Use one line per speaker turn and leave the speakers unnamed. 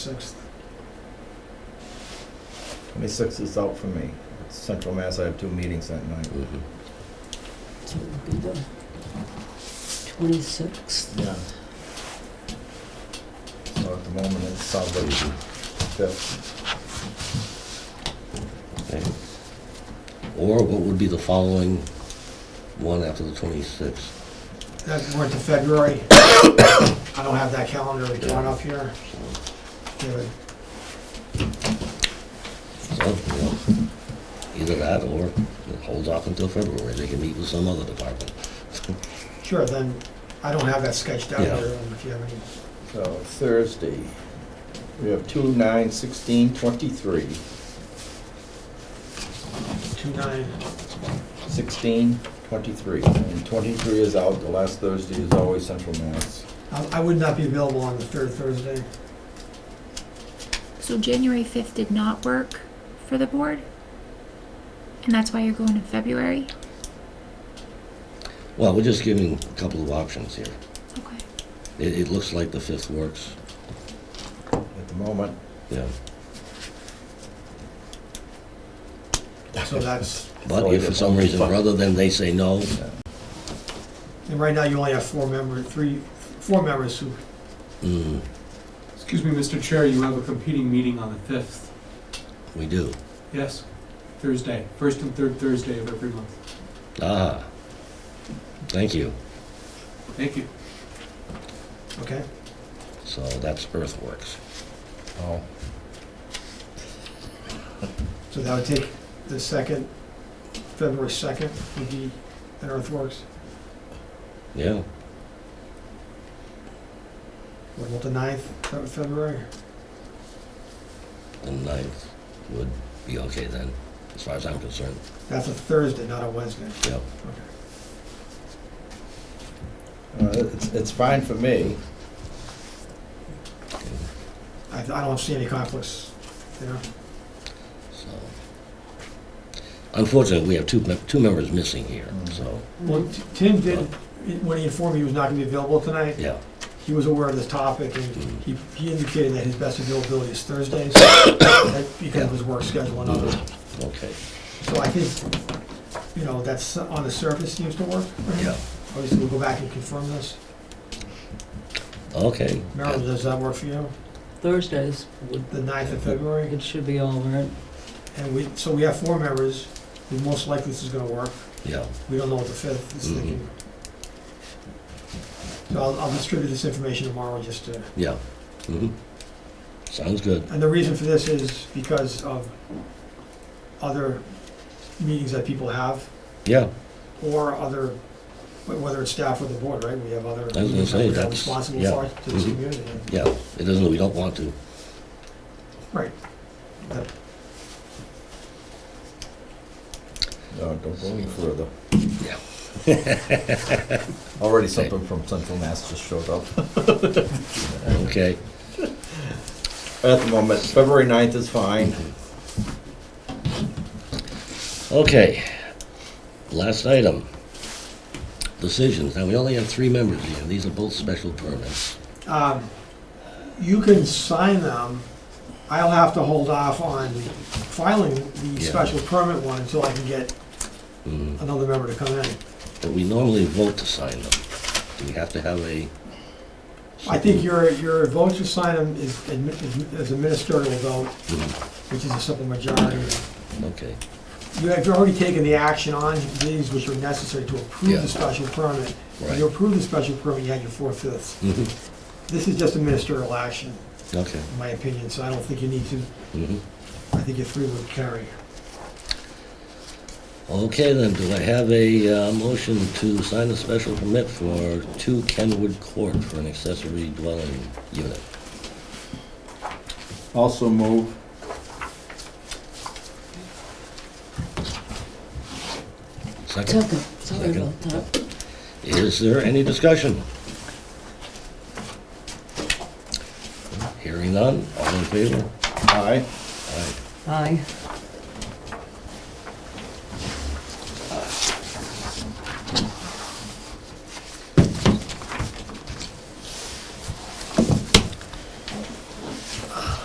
Sixth.
Twenty-sixth is out for me. It's Central Mass, I have two meetings that night.
So it would be the 26th.
Yeah. So at the moment, it sounds like the fifth.
Okay. Or what would be the following one after the 26th?
That went to February. I don't have that calendar drawn up here. Give it-
So, you know, either that or it holds off until February, they can meet with some other department.
Sure, then, I don't have that sketched out
Yeah.
here, um, if you have any.
So Thursday, we have two, nine, sixteen, twenty-three,
Two nine,
sixteen, twenty-three. And twenty-three is out, the last Thursday is always Central Mass.
Um, I I would not be available on the third Thursday.
So January 5th did not work for the board? And that's why you're going in February?
Well, we're just giving a couple of options here.
Okay.
It, it looks like the 5th works,
At the moment,
yeah.
So that's,
But if for some reason, rather than they say no,
yeah.
and right now you only have four members, three, four members who,
mm,
Excuse me, Mr. Chair, you have a competing meeting on the 5th.
we do.
Yes, Thursday, first and third Thursday of every month.
Ah, thank you.
Thank you.
okay?
So that's Earthworks.
Oh,
So that would take the second, February second would be at Earthworks.
Yeah,
What about the ninth, of February?
the 9th would be okay then, as far as I'm concerned.
That's a Thursday, not a Wednesday.
Yep.
Okay.
uh, it's, it's fine for me.
I, I don't see any conflicts, you know?
So, unfortunately, we have two, mem- two members missing here,
Mm.
so,
Well, T- Tim did, when he informed me he was not gonna be available tonight,
yeah.
he was aware of this topic, and
mm,
he, he indicated that his best availability is Thursdays, that because of his work schedule and other.
Okay,
So I think, you know, that's, on the surface seems to work.
yeah,
Obviously, we'll go back and confirm this.
okay.
Marilyn, does that work for you?
Thursdays, would
The ninth of February?
it should be all right.
And we, so we have four members, and most likely this is gonna work.
Yeah,
We don't know what the fifth is
Mhm.
thinking. So I'll, I'll distribute this information tomorrow just to,
yeah, mhm. Sounds good,
and the reason for this is because of other meetings that people have,
yeah,
or other, wh- whether it's staff or the board, right? We have other
gonna
meetings
say,
that we're
that's-
responsible
yeah.
for to this
Mhm.
community.
yeah. It doesn't, we don't want to.
No, don't go any further.
Yeah.
Already something from Central Mass just showed up.
Okay,
At the moment, February 9th is fine.
okay. Last item. Decisions. Now, we only have three members here. These are both special permits.
Um, You can sign them. I'll have to hold off on filing the
Yeah.
special permit one until I can get
Mm,
another member to come in.
But we normally vote to sign them. Do we have to have a?
I think your, your vote to sign them is admi- is a ministerial vote,
Mm,
which is a simple majority.
Okay,
You have already taken the action on these which are necessary to approve
Yeah.
the special permit. If you
right.
approve the special permit, you had your four-fifths.
Mhm,
This is just a ministerial action,
Okay.
in my opinion, so I don't think you need to,
mhm.
I think your three would carry.
Okay, then, do I have a uh, motion to sign a special permit for 2 Kenwood Court for an accessory dwelling unit?
Also move.
Second,
Second, sorry
Second.
about that.
is there any discussion? Hearing none, all in favor?
Aye.
Aye.
Aye.